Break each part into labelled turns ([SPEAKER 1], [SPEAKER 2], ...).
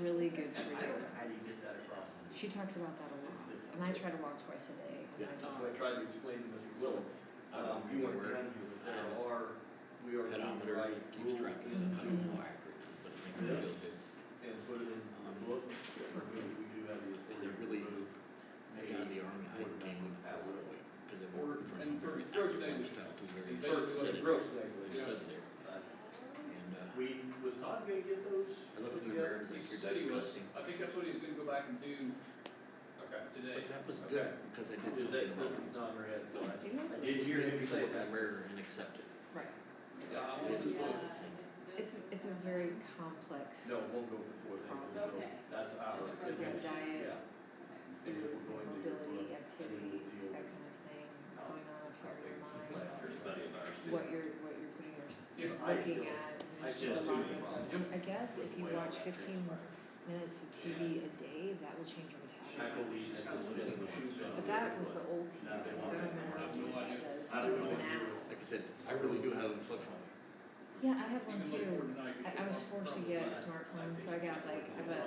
[SPEAKER 1] really good for you.
[SPEAKER 2] How do you get that across?
[SPEAKER 1] She talks about that a lot, and I try to walk twice a day. and I
[SPEAKER 3] Yeah.
[SPEAKER 2] That's
[SPEAKER 1] don't-
[SPEAKER 2] what I tried to explain to Mr. Willem. Um, you went down here, but there are, we are doing the
[SPEAKER 3] Pedometer
[SPEAKER 2] right
[SPEAKER 3] keeps
[SPEAKER 2] rules
[SPEAKER 3] track of stuff. I don't know how accurate it is, but it makes me feel
[SPEAKER 2] Yes.
[SPEAKER 3] good.
[SPEAKER 2] and put it in the book. For me, we do have the
[SPEAKER 3] Um, And
[SPEAKER 2] authority
[SPEAKER 3] they're
[SPEAKER 2] to
[SPEAKER 3] really,
[SPEAKER 2] remove
[SPEAKER 3] they got the army, I
[SPEAKER 2] Or
[SPEAKER 3] came
[SPEAKER 2] at will.
[SPEAKER 3] to the border from
[SPEAKER 4] And for
[SPEAKER 3] very
[SPEAKER 4] first
[SPEAKER 3] African
[SPEAKER 4] language.
[SPEAKER 3] stuff to very.
[SPEAKER 4] And
[SPEAKER 2] First, it was a gross
[SPEAKER 3] They
[SPEAKER 2] negligence.
[SPEAKER 3] sit there,
[SPEAKER 2] Uh,
[SPEAKER 3] and, uh,
[SPEAKER 2] We, was Todd gonna get those?
[SPEAKER 3] I looked in the
[SPEAKER 2] together?
[SPEAKER 3] mirror, and was like,
[SPEAKER 4] He
[SPEAKER 3] you're
[SPEAKER 4] said he was,
[SPEAKER 3] disgusting.
[SPEAKER 4] I think that's what he's gonna go back and do
[SPEAKER 2] Okay.
[SPEAKER 4] today.
[SPEAKER 3] But that was
[SPEAKER 2] Okay.
[SPEAKER 3] good, because I did
[SPEAKER 2] Is
[SPEAKER 3] something
[SPEAKER 2] that,
[SPEAKER 3] about
[SPEAKER 2] this
[SPEAKER 3] it.
[SPEAKER 2] is not in her head, so I
[SPEAKER 1] You know that-
[SPEAKER 2] did hear him say
[SPEAKER 3] Look in
[SPEAKER 2] that.
[SPEAKER 3] the mirror and accept it.
[SPEAKER 1] Right.
[SPEAKER 4] Yeah, I
[SPEAKER 3] Yeah.
[SPEAKER 4] want the book.
[SPEAKER 1] It's, it's a very complex.
[SPEAKER 2] No, it won't go before that. We'll go-
[SPEAKER 5] Okay.
[SPEAKER 2] That's our.
[SPEAKER 5] Just a
[SPEAKER 2] exception.
[SPEAKER 5] regular
[SPEAKER 1] diet.
[SPEAKER 2] Yeah. And if we're going to. do it, I
[SPEAKER 1] Mobility,
[SPEAKER 2] think we'll
[SPEAKER 1] activity,
[SPEAKER 2] deal
[SPEAKER 1] that
[SPEAKER 2] with
[SPEAKER 1] kind of thing, what's
[SPEAKER 2] how-
[SPEAKER 1] going on up
[SPEAKER 2] how
[SPEAKER 1] here in
[SPEAKER 2] things
[SPEAKER 1] your
[SPEAKER 2] play
[SPEAKER 1] mind,
[SPEAKER 2] out.
[SPEAKER 1] what you're, what you're putting your, s-
[SPEAKER 4] If
[SPEAKER 2] I
[SPEAKER 1] looking
[SPEAKER 2] still- I
[SPEAKER 1] at, and there's just a
[SPEAKER 2] still
[SPEAKER 1] lot of
[SPEAKER 2] do it
[SPEAKER 1] things going on.
[SPEAKER 4] wrong.
[SPEAKER 1] I guess
[SPEAKER 2] with
[SPEAKER 1] if you
[SPEAKER 2] the way
[SPEAKER 1] watch
[SPEAKER 2] I
[SPEAKER 1] fifteen
[SPEAKER 2] transpire.
[SPEAKER 1] minutes of TV a day, that will change your
[SPEAKER 2] I
[SPEAKER 1] metabolism.
[SPEAKER 2] believe that this is getting the shoes on.
[SPEAKER 1] But that was the old TV,
[SPEAKER 2] Now they want
[SPEAKER 1] so I
[SPEAKER 2] it.
[SPEAKER 1] don't know how that
[SPEAKER 4] No idea.
[SPEAKER 1] does,
[SPEAKER 2] I don't know if
[SPEAKER 1] does now.
[SPEAKER 2] you're-
[SPEAKER 3] Like I said, I really do have a flip phone.
[SPEAKER 1] Yeah, I have
[SPEAKER 4] You
[SPEAKER 1] one
[SPEAKER 4] can
[SPEAKER 1] too.
[SPEAKER 4] look for it tonight, you
[SPEAKER 1] I, I
[SPEAKER 4] can
[SPEAKER 1] was
[SPEAKER 4] walk
[SPEAKER 1] forced to
[SPEAKER 4] from
[SPEAKER 1] get a
[SPEAKER 4] the-
[SPEAKER 1] smartphone, so I got like, I have a,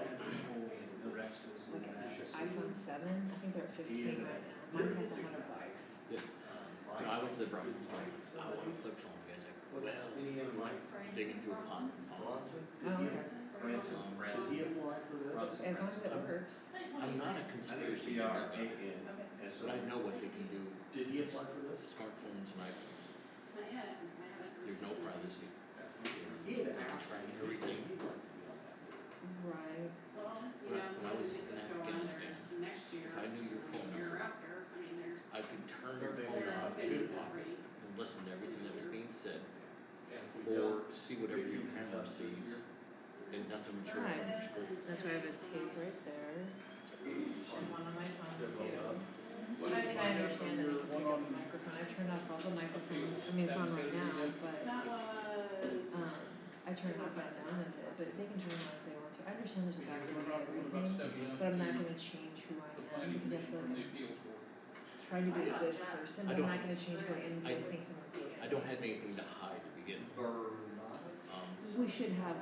[SPEAKER 1] like an iPhone seven, I think they're at fifteen right now, mine costs a hundred bucks.
[SPEAKER 3] Yeah. No,
[SPEAKER 2] Um,
[SPEAKER 3] I went to the Brian, I
[SPEAKER 2] Somebody-
[SPEAKER 3] want a flip phone, the guy's like,
[SPEAKER 2] What's
[SPEAKER 3] well,
[SPEAKER 2] any of my
[SPEAKER 3] digging through a pond and falling.
[SPEAKER 2] Bronson?
[SPEAKER 1] Oh,
[SPEAKER 2] Did he-
[SPEAKER 1] okay.
[SPEAKER 2] Branson,
[SPEAKER 3] Branson.
[SPEAKER 2] Did he apply for this?
[SPEAKER 1] As long as it works.
[SPEAKER 3] I'm not a conspiracy theorist, but I know what they can do,
[SPEAKER 2] Did he apply for this?
[SPEAKER 3] smartphones and iPhones, there's no privacy.
[SPEAKER 2] He had asked, me, and he said he'd like to be on that. board.
[SPEAKER 1] Right.
[SPEAKER 5] Well, you know, whether this go on or next year, year after, I mean, there's.
[SPEAKER 3] I could turn
[SPEAKER 2] Or
[SPEAKER 3] the
[SPEAKER 2] maybe
[SPEAKER 3] phone on
[SPEAKER 2] not. Good.
[SPEAKER 3] and listen to everything that was being said,
[SPEAKER 2] And if we
[SPEAKER 3] or
[SPEAKER 2] don't-
[SPEAKER 3] see whatever
[SPEAKER 2] if he
[SPEAKER 3] your
[SPEAKER 2] uses
[SPEAKER 3] camera
[SPEAKER 2] us this
[SPEAKER 3] sees,
[SPEAKER 2] year,
[SPEAKER 3] and nothing material from your screen.
[SPEAKER 1] That's why I have a tape right there. And one on my phone
[SPEAKER 2] they're both
[SPEAKER 1] too.
[SPEAKER 2] on.
[SPEAKER 4] What
[SPEAKER 1] I
[SPEAKER 4] did
[SPEAKER 1] mean, I
[SPEAKER 4] you find out
[SPEAKER 1] understand that I can
[SPEAKER 4] from your
[SPEAKER 1] pick
[SPEAKER 4] one
[SPEAKER 1] up
[SPEAKER 4] on-
[SPEAKER 1] the microphone. I turned off all the microphones. I mean, it's on right now, but,
[SPEAKER 5] That was.
[SPEAKER 1] um, I turned off that none of it, but they can turn it on if they want to. I understand there's a
[SPEAKER 4] Because
[SPEAKER 1] background to
[SPEAKER 4] we're not- we're about
[SPEAKER 1] everything,
[SPEAKER 4] stepping up
[SPEAKER 1] but I'm not
[SPEAKER 4] to
[SPEAKER 1] gonna change who I
[SPEAKER 4] The
[SPEAKER 1] am because I
[SPEAKER 4] planning
[SPEAKER 1] feel
[SPEAKER 4] commission from the
[SPEAKER 1] like I'm
[SPEAKER 4] appeals board.
[SPEAKER 1] trying to be a
[SPEAKER 5] I got
[SPEAKER 1] good
[SPEAKER 5] that.
[SPEAKER 1] person,
[SPEAKER 3] I
[SPEAKER 1] but I'm
[SPEAKER 3] don't-
[SPEAKER 1] not gonna change who I am because I
[SPEAKER 3] I-
[SPEAKER 1] think someone sees
[SPEAKER 3] I
[SPEAKER 1] it.
[SPEAKER 3] don't have anything to hide to begin with.
[SPEAKER 2] Bernard?
[SPEAKER 3] Um,
[SPEAKER 1] We should have,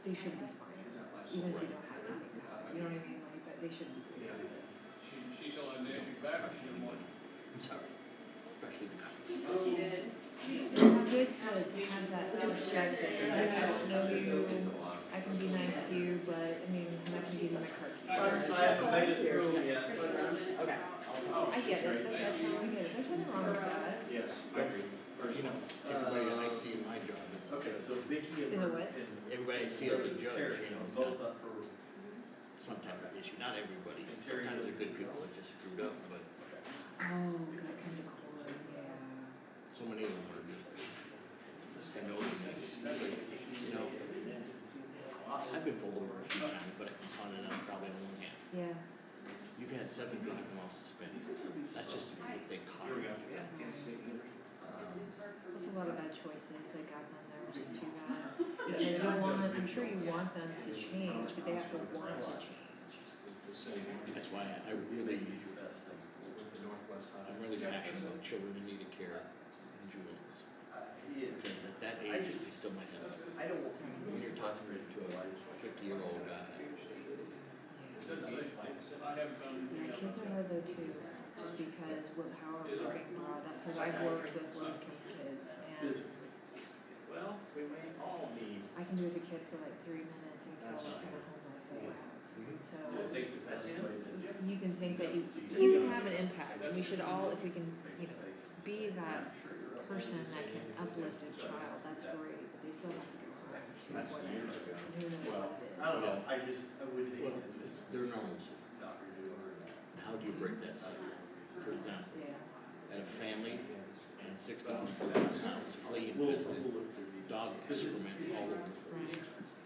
[SPEAKER 1] they should be spying on us, even if we
[SPEAKER 3] Right.
[SPEAKER 1] don't have anything to hide. You know what I mean? Like, but they shouldn't be doing that.
[SPEAKER 4] She, she's on
[SPEAKER 3] I don't
[SPEAKER 4] the edge of back,
[SPEAKER 3] trust
[SPEAKER 4] she didn't want.
[SPEAKER 3] anybody. I'm sorry, especially the cops.
[SPEAKER 5] She did.
[SPEAKER 1] Um, It's good to have that other check that you're like, I don't know you, I can be nice to you, but, I mean, I'm not gonna give you my car
[SPEAKER 2] I
[SPEAKER 1] keys.
[SPEAKER 2] haven't made it through yet.
[SPEAKER 3] um,
[SPEAKER 5] Okay.
[SPEAKER 1] I get it, that's our town, I get it, there's nothing wrong with that.
[SPEAKER 2] Yes, I agree.
[SPEAKER 3] Or, you know, everybody that I see in my job is.
[SPEAKER 2] Uh, Okay, so Vicky and.
[SPEAKER 1] Is it what?
[SPEAKER 2] and-
[SPEAKER 3] Everybody I see as a judge,
[SPEAKER 2] Terry,
[SPEAKER 3] you know,
[SPEAKER 2] Both up for.
[SPEAKER 3] some type of issue, not everybody,
[SPEAKER 2] And Terry
[SPEAKER 3] sometimes
[SPEAKER 2] was-
[SPEAKER 3] the good people that just screwed up, but
[SPEAKER 1] Oh, gotta come to court, yeah.
[SPEAKER 3] so many of them are just. Just kind of, you know, I've been pulled over a few times, but I can count it on probably on one hand.
[SPEAKER 1] Yeah.
[SPEAKER 3] You've had seven driving while suspended, that's just a big Um, car.
[SPEAKER 1] That's a lot of bad choices that got them there, which is too bad. Because you want, I'm sure you want them to change, but they have to want to change.
[SPEAKER 3] That's why I really,
[SPEAKER 2] Did your best things. With the Northwest
[SPEAKER 3] I'm
[SPEAKER 2] Highway.
[SPEAKER 3] really passionate about children in need of care and juveniles,
[SPEAKER 2] Uh, yeah.
[SPEAKER 3] because at that age, they still might have, it.
[SPEAKER 2] I don't want.
[SPEAKER 3] when you're talking to a fifty-year-old guy,
[SPEAKER 4] I haven't found
[SPEAKER 1] Yeah,
[SPEAKER 4] anything out
[SPEAKER 1] kids
[SPEAKER 4] about
[SPEAKER 1] are hard
[SPEAKER 4] that.
[SPEAKER 1] though too, just because what, how are we being brought up, cause I've worked with low-income kids and
[SPEAKER 2] Physically.
[SPEAKER 4] Well,
[SPEAKER 2] We may all need.
[SPEAKER 1] I can be with a kid for like three minutes and tell what kind of home life they have. And so,
[SPEAKER 2] I think that that's the way that.
[SPEAKER 1] you can think that you, you have an impact, and we should all, if we can, you know, be that person that can uplift a child, that's great, but they still have to go home to
[SPEAKER 2] That's
[SPEAKER 1] what,
[SPEAKER 2] years ago.
[SPEAKER 1] who knows what it is.
[SPEAKER 2] I don't know, I just, I would hate
[SPEAKER 3] well,
[SPEAKER 2] to just
[SPEAKER 3] they're normalcy.
[SPEAKER 2] not renew or not.
[SPEAKER 3] How do you break that cycle? For example,
[SPEAKER 1] Yeah,
[SPEAKER 3] I had a family and six dogs in the house, flea infested, dog excrement all over the floor.